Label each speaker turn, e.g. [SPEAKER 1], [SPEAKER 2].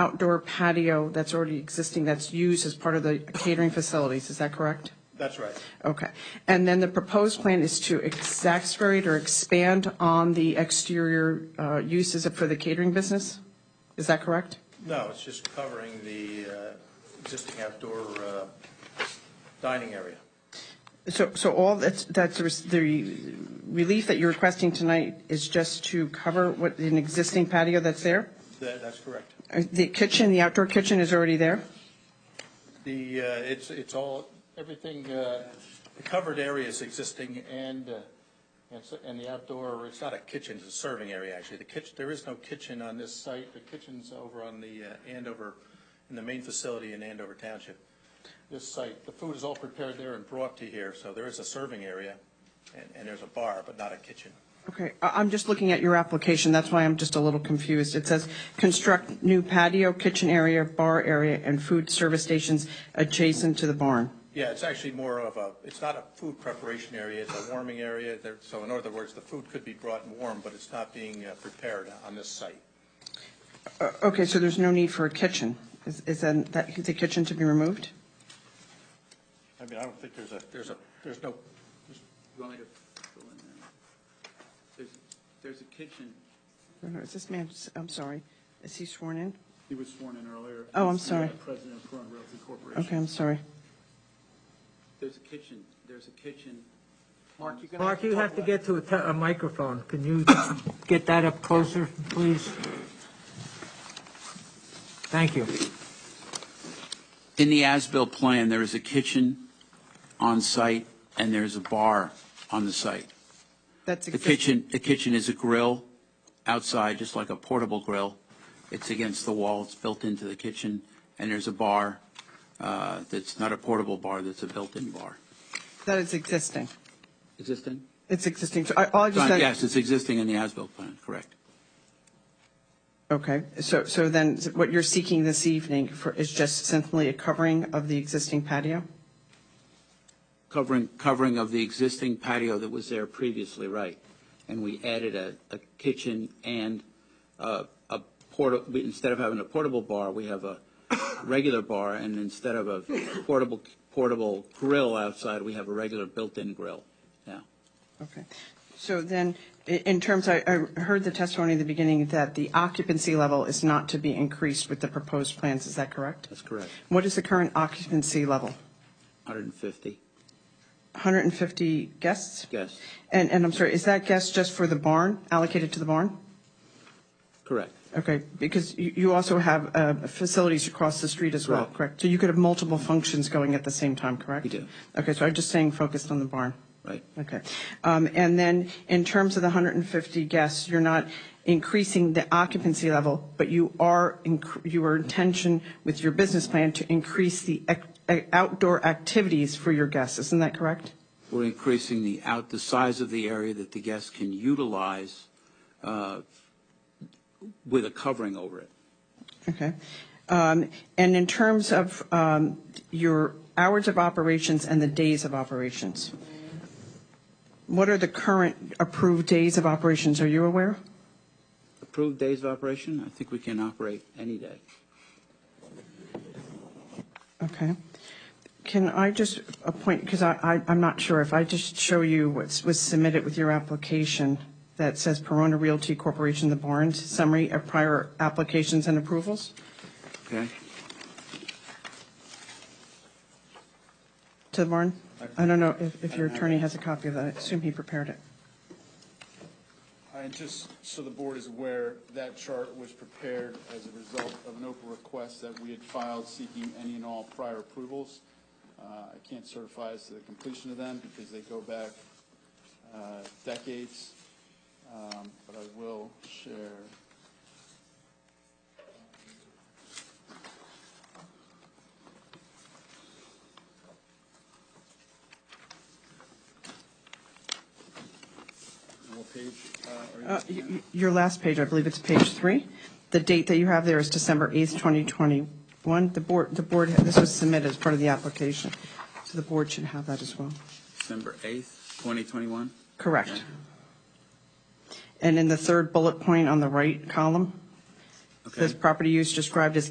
[SPEAKER 1] outdoor patio that's already existing, that's used as part of the catering facilities, is that correct?
[SPEAKER 2] That's right.
[SPEAKER 1] Okay. And then the proposed plan is to exacerbate or expand on the exterior uh, uses for the catering business? Is that correct?
[SPEAKER 2] No, it's just covering the uh, existing outdoor uh, dining area.
[SPEAKER 1] So, so all that's, that's the relief that you're requesting tonight is just to cover what, an existing patio that's there?
[SPEAKER 2] That- That's correct.
[SPEAKER 1] Uh, The kitchen, the outdoor kitchen is already there?
[SPEAKER 2] The, uh, it's, it's all, everything, uh, the covered area is existing and, uh, and so- and the outdoor, it's not a kitchen, it's a serving area, actually. The kitchen, there is no kitchen on this site. The kitchen's over on the uh, Andover, in the main facility in Andover Township. This site, the food is all prepared there and brought to here, so there is a serving area and, and there's a bar, but not a kitchen.
[SPEAKER 1] Okay, I- I'm just looking at your application, that's why I'm just a little confused. It says, "Construct new patio, kitchen area, bar area, and food service stations adjacent to the barn."
[SPEAKER 2] Yeah, it's actually more of a, it's not a food preparation area, it's a warming area. There- So in other words, the food could be brought and warm, but it's not being uh, prepared on this site.
[SPEAKER 1] Uh, Okay, so there's no need for a kitchen. Is is then that the kitchen to be removed?
[SPEAKER 2] I mean, I don't think there's a, there's a, there's no,
[SPEAKER 3] You want me to fill in there? There's, there's a kitchen,
[SPEAKER 1] Is this man, I'm sorry, is he sworn in?
[SPEAKER 3] he was sworn in earlier.
[SPEAKER 1] Oh, I'm
[SPEAKER 3] He's the,
[SPEAKER 1] sorry.
[SPEAKER 3] uh, President of Corona Realty Corporation.
[SPEAKER 1] Okay, I'm sorry.
[SPEAKER 3] There's a kitchen, there's a kitchen.
[SPEAKER 4] Mark, you
[SPEAKER 5] Mark, you have to get to a te- a microphone. Can you get that up closer, please? Thank you.
[SPEAKER 6] In the as-built plan, there is a kitchen on site and there's a bar on the site.
[SPEAKER 1] That's
[SPEAKER 6] The
[SPEAKER 1] exist-
[SPEAKER 6] kitchen, the kitchen is a grill outside, just like a portable grill. It's against the wall, it's built into the kitchen, and there's a bar uh, that's not a portable bar, that's a built-in bar.
[SPEAKER 1] That is existing.
[SPEAKER 6] Existing?
[SPEAKER 1] It's existing, so I all I just said...
[SPEAKER 6] Yes, it's existing in the as-built plan, correct.
[SPEAKER 1] Okay, so, so then what you're seeking this evening for, is just simply a covering of the existing patio?
[SPEAKER 6] Covering, covering of the existing patio that was there previously, right. And we added a, a kitchen and uh, a portable, instead of having a portable bar, we have a regular bar, and instead of a portable, portable grill outside, we have a regular built-in grill now.
[SPEAKER 1] Okay. So then, i- in terms, I, I heard the testimony in the beginning that the occupancy level is not to be increased with the proposed plans, is that correct?
[SPEAKER 6] That's correct.
[SPEAKER 1] What is the current occupancy level?
[SPEAKER 6] 150
[SPEAKER 1] 150 guests?
[SPEAKER 6] guests,
[SPEAKER 1] And, and I'm sorry, is that guest just for the barn, allocated to the barn?
[SPEAKER 6] correct.
[SPEAKER 1] Okay, because you, you also have uh, facilities across the street as well,
[SPEAKER 6] Correct.
[SPEAKER 1] correct? So you could have multiple functions going at the same time, correct?
[SPEAKER 6] We do.
[SPEAKER 1] Okay, so I'm just staying focused on the barn.
[SPEAKER 6] Right.
[SPEAKER 1] Okay. Um, And then, in terms of the 150 guests, you're not increasing the occupancy level, but you are, inc- your intention with your business plan to increase the ec- eh, outdoor activities for your guests, isn't that correct?
[SPEAKER 6] We're increasing the out, the size of the area that the guests can utilize uh, with a covering over it.
[SPEAKER 1] Okay. Um, And in terms of um, your hours of operations and the days of operations, what are the current approved days of operations? Are you aware?
[SPEAKER 6] Approved days of operation, I think we can operate any day.
[SPEAKER 1] Okay. Can I just appoint, because I, I- I'm not sure, if I just show you what was submitted with your application that says Perona Realty Corporation, The Barnes, summary of prior applications and approvals?
[SPEAKER 6] Okay?
[SPEAKER 1] to the barn? I don't know if, if your attorney has a copy of that. I assume he prepared it.
[SPEAKER 7] And just so the board is aware, that chart was prepared as a result of an open request that we had filed seeking any and all prior approvals. Uh, I can't certify as to the completion of them because they go back uh, decades, Um, but I will share. What page uh, are you?
[SPEAKER 1] Uh, y- y- Your last page, I believe it's page three. The date that you have there is December 8th, 2021. The board, the board, this was submitted as part of the application, so the board should have that as well.
[SPEAKER 6] December 8th, 2021?
[SPEAKER 1] Correct. And in the third bullet point on the right column, This property use described as